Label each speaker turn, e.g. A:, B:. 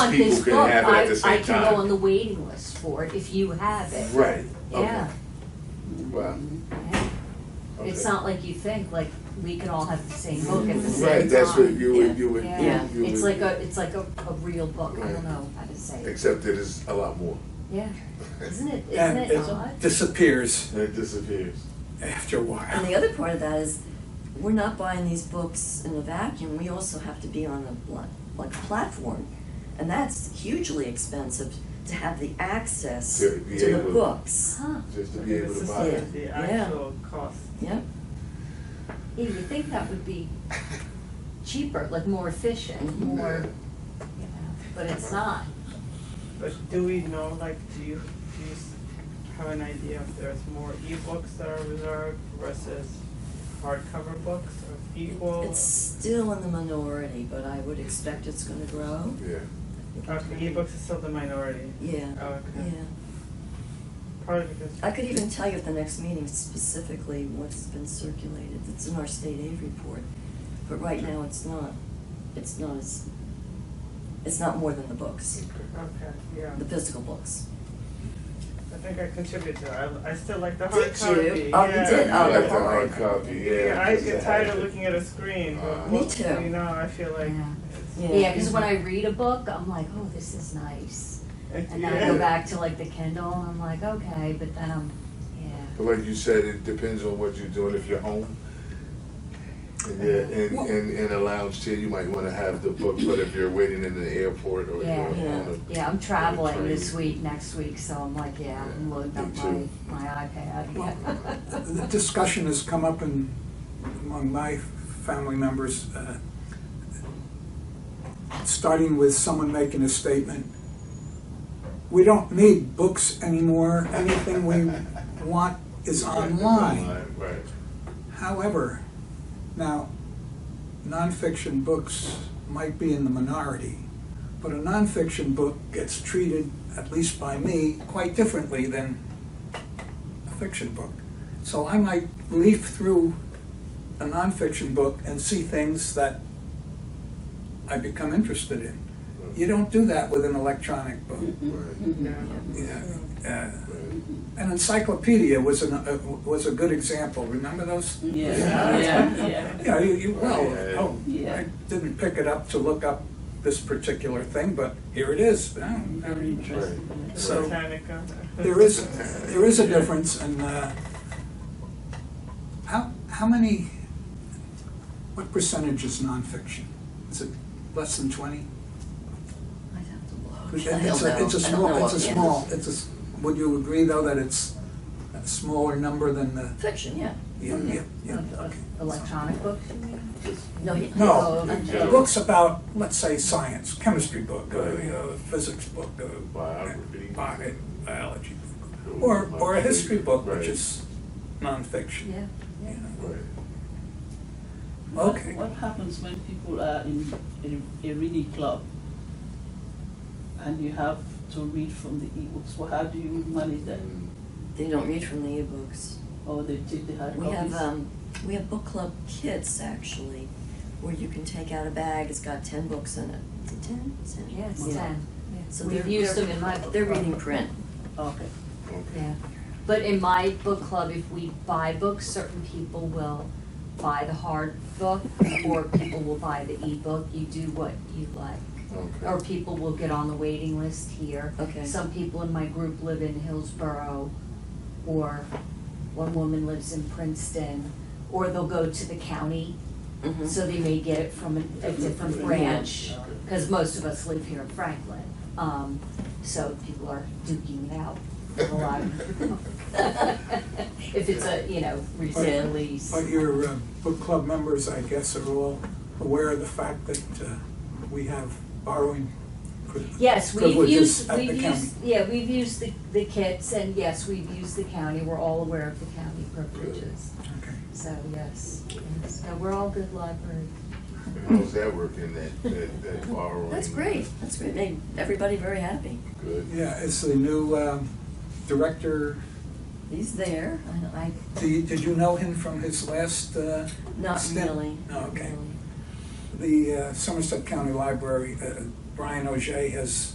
A: on
B: people
A: his
B: can
A: book,
B: have it at
A: I-
B: the same
A: I can
B: time.
A: go on the waiting list for it if you have it.
B: Right. okay.
A: Yeah,
B: Wow.
A: yeah. It's
B: Okay.
A: not like you think, like, we could all have the same book at the same time.
B: Right, that's what you
A: Yeah.
B: would, you would,
A: Yeah,
B: you
A: it's like
B: would,
A: a, it's like a, a real book, I
B: Right.
A: don't know how to say it.
B: except that it's a lot more.
A: Yeah, isn't it, isn't
C: And
A: it odd?
C: it disappears
B: It disappears.
C: after a
D: And
C: while.
D: the other part of that is, we're not buying these books in a vacuum, we also have to be on a, like, like a platform. And that's hugely expensive to have the access
B: To be
D: to
B: able-
D: the books.
A: Huh,
B: Just to be able to buy
D: Yeah.
B: it.
E: The
D: Yeah.
E: actual cost.
D: Yep,
A: yeah, you think that would be cheaper, like more efficient, more, you know, but it's not.
E: But do we know, like, do you, do you s- have an idea if there's more ebooks that are reserved versus hardcover books or equal?
D: it's still in the minority, but I would expect it's gonna grow.
B: Yeah.
E: Okay, ebooks is still the minority.
D: Yeah,
E: Oh, okay.
D: yeah.
E: Probably because,
D: I could even tell you at the next meeting specifically what's been circulated, it's in our state aid report, but right now it's not, it's not as, it's not more than the books,
E: okay, yeah.
D: the physical books.
E: I think I contributed to that. I, I still like the
D: Did you?
E: hardcopy.
D: Oh, you
E: yeah.
D: did? Oh,
B: You like the
D: hard.
B: hard copy, yeah.
E: Yeah, I
B: because
E: get
B: it
E: tired of
B: had-
E: looking at a screen,
B: Uh,
E: but
D: Me
E: books, you
D: too.
E: know, I feel like
A: Yeah.
E: it's.
A: Yeah, because when I read a book, I'm like, oh, this is nice.
E: it's-
A: And then I go
E: yeah.
A: back to like the Kindle, and I'm like, okay, but then I'm, yeah.
B: But like you said, it depends on what you're doing. If you're home, and you're in, in, in a lounge chair, you might want to have the book. But if you're waiting in the airport or
A: Yeah.
B: you're
D: Yeah.
B: on
A: Yeah, I'm traveling this
B: train.
A: week, next week, so I'm like, yeah, I'm
B: Yeah,
A: loading
B: me
A: up my,
B: too.
A: my iPad.
C: Well,
A: Yeah.
C: The discussion has come up in, among my family members, uh, starting with someone making a statement. We don't need books anymore, anything we want is online.
B: right?
C: However, now, nonfiction books might be in the minority, but a nonfiction book gets treated, at least by me, quite differently than a fiction book. So I might leaf through a nonfiction book and see things that I become interested in. You don't do that with an electronic book.
B: Right.
E: Yeah.
C: Yeah. Uh,
B: Right.
C: An encyclopedia was an, uh, was a good example, remember those?
F: Yeah,
C: Yeah.
F: yeah, yeah.
C: Yeah, you, you, well,
B: Yeah.
C: oh, I
F: Yeah.
C: didn't pick it up to look up this particular thing, but here it is. Oh,
F: Very interesting.
C: So-
E: Britannica.
C: There is, there is a difference and, uh, how, how many, what percentage is nonfiction? Is it less than twenty?
D: I'd have to look.
C: It's
D: I don't
C: a, it's a
D: know. I don't know
C: small, it's a
D: offhand.
C: small, it's a, s- would you agree though that it's a smaller number than the,
D: Fiction, yeah.
C: yeah,
D: Mm-hmm.
C: yeah, yeah,
A: Of- of
C: okay.
A: Electronic book, you mean?
D: No, yeah.
C: No,
A: Oh,
B: Yeah.
C: books about, let's say, science, chemistry book, uh, you know, physics book, uh,
B: Biography.
C: bi- biology, book, or, or a history book, which
B: Right.
C: is nonfiction.
A: Yeah,
C: you know.
B: Right.
F: What-
C: Okay.
F: What happens when people are in in a reading club and you have to read from the ebooks? Well, how do you manage that?
B: Mm,
D: They don't read from the ebooks.
F: Or they take the hard
D: We have,
F: copies?
D: um, we have book club kits actually, where you can take out a bag, it's got ten books in it. Is it Ten? Is it-
A: yeah, it's ten. Yeah.
D: So
A: We've
D: they're,
A: used
D: they're-
A: them in my book.
D: they're
A: club.
D: reading print. um,
F: Okay.
B: Okay.
A: Yeah, but in my book club, if we buy books, certain people will buy the hard book, or people will buy the ebook, you do what you like. Or
B: Okay.
A: people will get on the waiting list here.
D: Okay.
A: Some people in my group live in Hillsborough, or one woman lives in Princeton, or they'll go to the county,
D: Mhm.
A: Mm-hmm. so they may get it from a- a different branch, because most of us live here in Franklin. Um, so people are duking it out a lot. If it's a, you know,
D: Yeah.
A: recent lease.
C: But your uh, book club members, I guess, are all aware of the fact that uh, we have borrowing pri-
A: Yes, we've
C: privileges
A: used,
C: at the
A: we've
C: county.
A: used, yeah, we've used the, the kits, and yes, we've used the county, we're all aware of the county privileges.
C: Okay.
A: So, yes, yes, no, we're all good library.
B: How's that working? That that, that borrowing.
D: That's great, that's great, made everybody very happy.
B: Good.
C: Yeah, it's the new um, director,
D: He's there, I, I,
C: Do you- did you know him from his last uh,
D: not
C: Stan-
D: really.
C: No, Oh, okay.
D: really.
C: The uh, Somerset County Library, uh, Brian O'Jay has